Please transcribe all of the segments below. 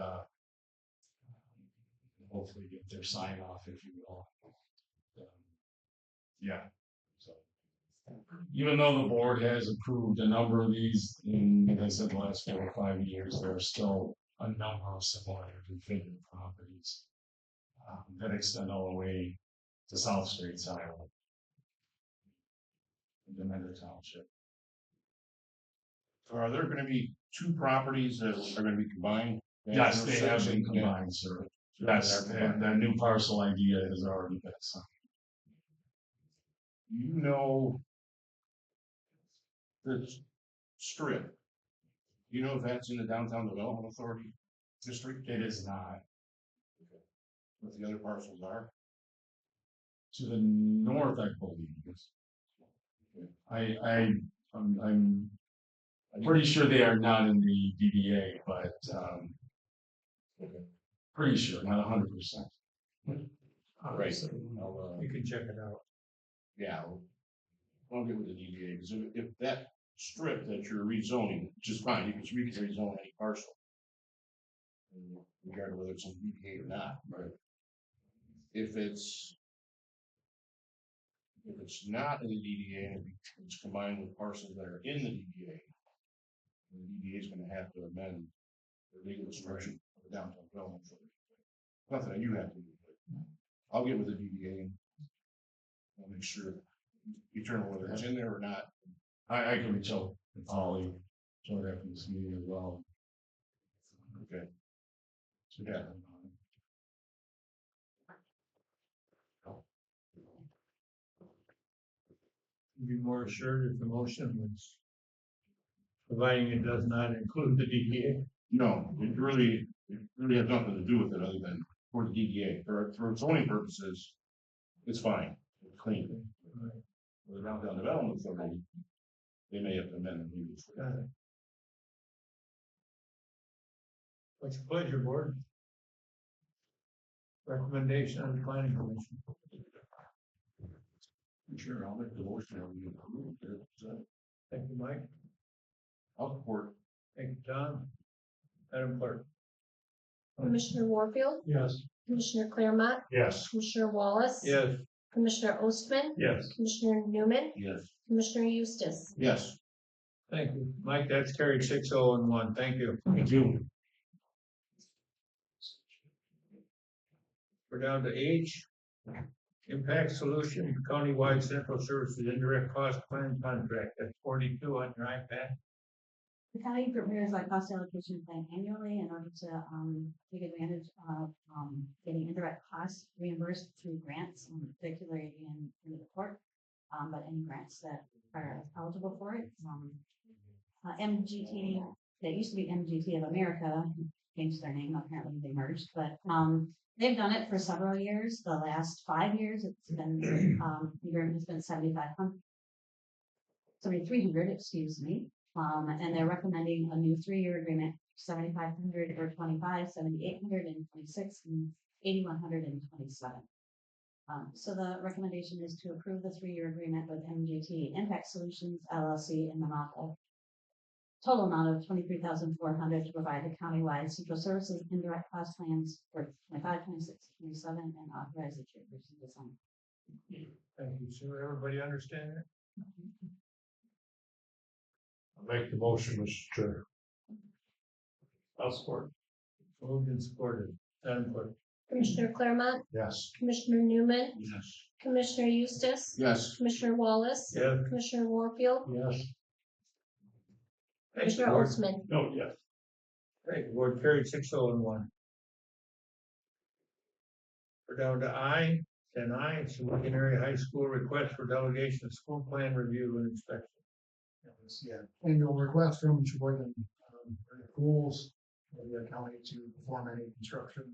uh, um, hopefully get their sign off, if you will. Um, Yeah, so. Even though the board has approved a number of these in, like I said, the last four or five years, there are still a number of similar configured properties. Um, that extend all the way to South Street, Iowa. The Mender Township. Are there gonna be two properties that are gonna be combined? Yes, they have Intersection? been combined, sir. Yeah. That's, They're combined. that, that new parcel idea has already been signed. You know. This strip. You know if that's in the downtown development authority district, It is not. what the other parcels are? To the north, I believe. I, I, I'm, I'm pretty sure they are not in the DDA, but, um, Okay. pretty sure, not a hundred percent. Right. I'll, uh, can check it out. Yeah. I'll- I'll get with the DVA because if, if that strip that you're rezoning, which is fine, you can you can rezone any parcel. um, Regardless of whether it's in DVA or not. Right. If it's. If it's not in the DDA and it- it's combined with parcels that are in the DDA. The DDA is gonna have to amend the legal description of the downtown development. authority. Nothing that you have to do. but I'll get with the DDA and. I'll make sure determine whether it's in there or not. I, I can reach out to Polly, shortly after this meeting as well. Okay. So, yeah. be more assured if the motion was providing it does not include the DDA. No, it really, it really has nothing to do with it other than for the DDA, for, for zoning purposes, it's fine, it's clean. Right. For the downtown development authority, they may have to amend the use. Got it. What's your pleasure, board? Recommendation on the planning commission. Sure, I'll make the motion, I'll be approved, Thank you, Mike. I'll support. Thank you, Tom. Madam Clerk. Commissioner Warfield, Yes. Commissioner Claremont, Yes. Commissioner Wallace. Yes. Commissioner Ostman, Yes. Commissioner Newman, Yes. Commissioner Eustace. Yes. Thank you. Mike, that's carried six oh and one. Thank you. Thank you. We're down to H. Impact Solution Countywide Central Services Indirect Cost Plan Contract, that's forty-two on your iPad. The county prepares our cost allocation plan annually in order to, um, take advantage of, um, getting indirect costs reimbursed through grants, um, particularly in, in the court. Um, but any grants that are eligible for it, um, uh, MGT, they used to be MGT of America, changed their name, apparently they merged, but, um, they've done it for several years, the last five years, it's been, um, the grant has been seventy-five hundred. Seventy-three hundred, excuse me, um, and they're recommending a new three-year agreement, seventy-five hundred or twenty-five, seventy-eight hundred and twenty-six, and eighty-one hundred and twenty-seven. Um, so the recommendation is to approve the three-year agreement with MGT Impact Solutions LLC in the amount of total amount of twenty-three thousand four hundred to provide the countywide central services indirect cost plans for 25, 26, 27, and authorize the chairperson to sign. Thank you, sir. Everybody understand that? Make the motion, Mr. Chair. I'll support. Moved and supported. Madam Clerk. Commissioner Claremont, Yes. Commissioner Newman, Yes. Commissioner Eustace, Yes. Commissioner Wallace. Yes. Commissioner Warfield, Yes. Thank you, Commissioner board. Ostman. No, yes. Great, board carried six oh and one. We're down to I, and I, it's Lincoln Area High School Request for Delegation of School Plan Review and Inspection. yeah, annual request from Sheboygan, um, for the schools, for the county to perform any construction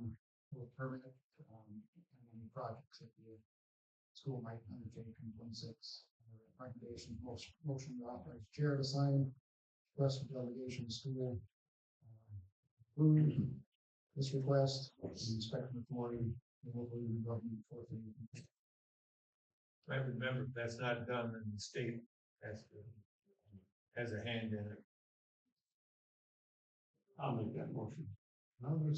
or permit, um, and any projects that the school might undertake in twenty-six. Recommendation, motion, motion to authorize chair to sign, request for delegation to school. um, approve This request, inspection authority, and local government enforcement. I remember that's not done in the state, has to, has a hand in it. I'll make that motion. Now, there's